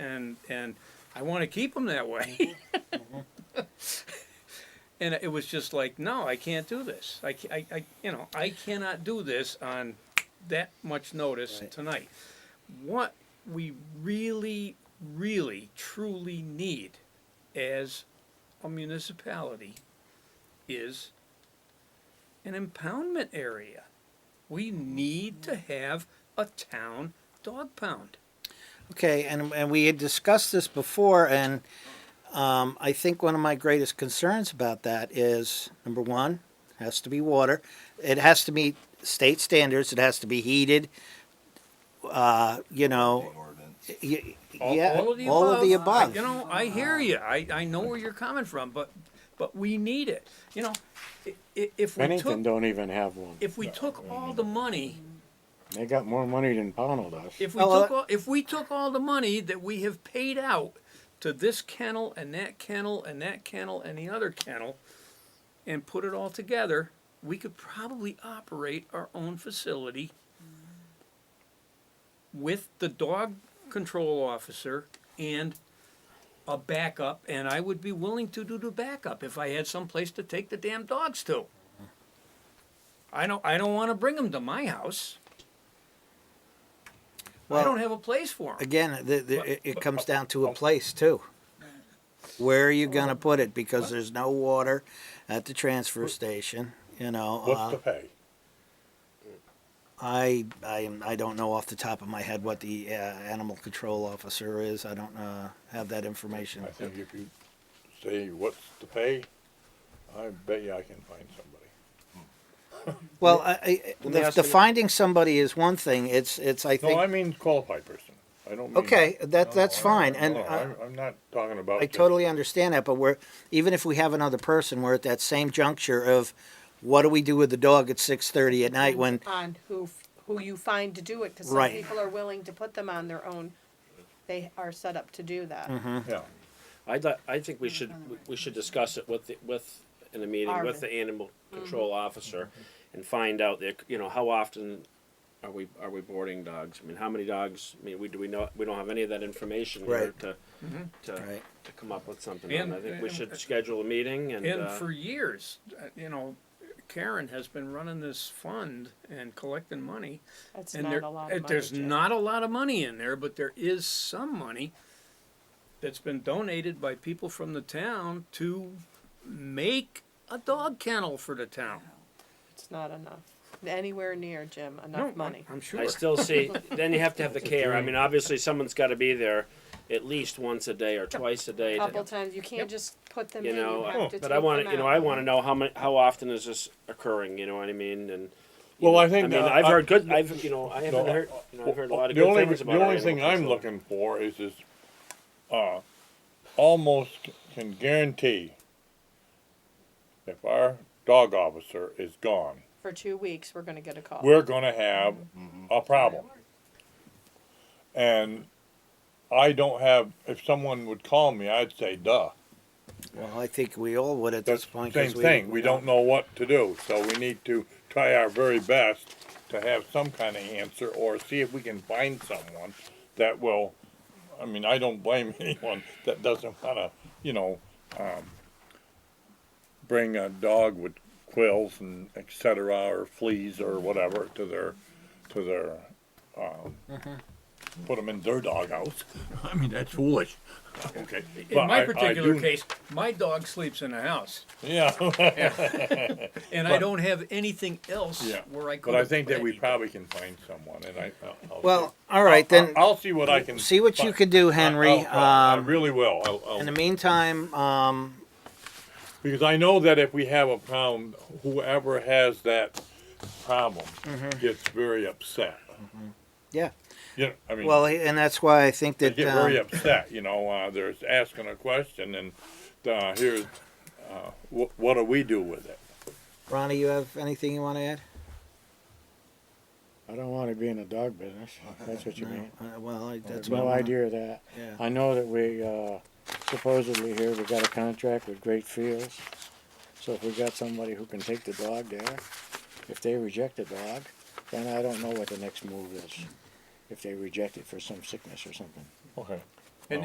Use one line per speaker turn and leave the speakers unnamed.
and I want to keep them that way. and it was just like, no, I can't do this. I, ca- I, I you know, I cannot do this on that much notice
Right.
tonight. What we really, really, truly need as a municipality is an impoundment area. We need to have a town dog pound.
Okay, and, and we had discussed this before, and um, I think one of my greatest concerns about that is number one, it has to be water. It has to meet state standards. It has to be heated. Uh, you know, y- y-
All,
yeah,
all of the above.
of the
I-
above.
you know, I hear you. I, I know where you're coming from, but but we need it. You know, i- i- if we
Bennington
took
don't even have one.
if we took all the money,
They got more money than Pownell does.
if we
Oh, well,
took all, if we took all the money that we have paid out to this kennel and that kennel and that kennel and the other kennel, and put it all together, we could probably operate our own facility with the dog control officer and a backup, and I would be willing to do the backup if I had someplace to take the damn dogs to.
Hmm.
I don't, I don't wanna bring them to my house. I
Well-
don't have a place for them.
Again, the, the, it, it comes down to a place too. Where are you
Oh.
going to put it? Because there's no water at the transfer station. You know, uh,
What's the pay?
I I am I don't know off the top of my head what the uh, animal control officer is. I don't uh, have that information.
I think if you say what's the pay, I bet you I can find somebody.
Well, I, I,
me
the,
ask
the
you-
finding somebody is one thing. It's it's I think
No, I mean qualified person. I don't mean.
okay that that's
No, I-
fine,
I-
and
no,
I,
I'm, I'm not talking about.
I
just-
totally understand that. But we're even if we have another person, we're at that same juncture of what do we do with the dog at six thirty at night when
on who f- who you find to do it because some
Right.
people are willing to put them on their own. They are set up to do that.
Mm-hmm.
Yeah,
I'd like, I think we should, we should discuss it with, the- with, in a meeting, with
Arvin.
the animal control officer and find out that, you know, how often are we, are we boarding dogs? I mean, how many dogs, I mean, we, do we know, we don't have any of that information here
Right.
to, to,
Right.
to come up with something.
And-
on. I think we
and-
should schedule a meeting and,
And
uh,
for years, uh, you know, Karen has been running this fund and collecting money.
That's
And
not
there,
a lot.
uh,
Of money,
there's
Jim.
not a lot of money in there, but there is some money that's been donated by people from the town to make a dog kennel for the town.
It's not enough. Anywhere near Jim enough
No, I'm-
money.
I'm sure.
I still see, then you have to have the care. I mean, obviously, someone's gotta be there at least once a day or twice a day.
A
to-
couple times you can't just put them
you
in.
know,
you have
Oh,
to
but
take
I want
them
to, you know,
out.
I want to know how much, how often is this occurring? You know what I mean? And you
Well,
know,
I think
I mean,
that
I've
I-
heard good. I've you know, I haven't
No,
heard. You know, I've heard a lot of
the
good
only,
things
the
about. our
only
animal
thing I'm
control.
looking for is this, uh, almost c- can guarantee if our dog officer is gone,
For two weeks, we're going to get a call.
we're gonna have a problem. And I don't have, if someone would call me, I'd say, duh.
well I think we all would at
That's
this
the
point.
same
'cause
thing, we don't know what to do, so we need to try our very best to have some kind of answer, or see if we can find someone that will, I mean, I don't blame anyone that doesn't wanna, you know, um, bring a dog with quills and et cetera, or fleas or whatever to their, to their, um, put them in their doghouse, I mean, that's foolish, okay. but
In my
I- I
particular
do-
case, my dog sleeps in a house,
Yeah.
and I don't have anything else
Yeah,
where I could.
But I think that we
put it.
probably can find someone, and I. I'll- I'll
Well,
see.
all right then.
I'll, I'll see what I can.
see what you
find.
can do,
I-
Henry.
I'll- I'll- I
Um,
really will. I'll,
In the
I'll,
meantime, um,
because I know that if we have a problem, whoever has that problem
Mm-hmm.
gets very upset.
yeah.
You know, I mean,
Well, and that's why I think
they
that
get very
um,
upset. You know, uh, they're asking a question, and uh, here's uh, wh- what do we do with it?
Ronnie, you have anything you want to add?
I don't want to be in the dog business. if That's what you mean.
Uh, well, I,
That's
that's what
no
I wanna-
idea of that.
Yeah.
I know that we uh, supposedly here we got a contract with Great Fields. So if we got somebody who can take the dog there, if they reject the dog, then I don't know what the next move is. If they reject it for some sickness or something.
Okay.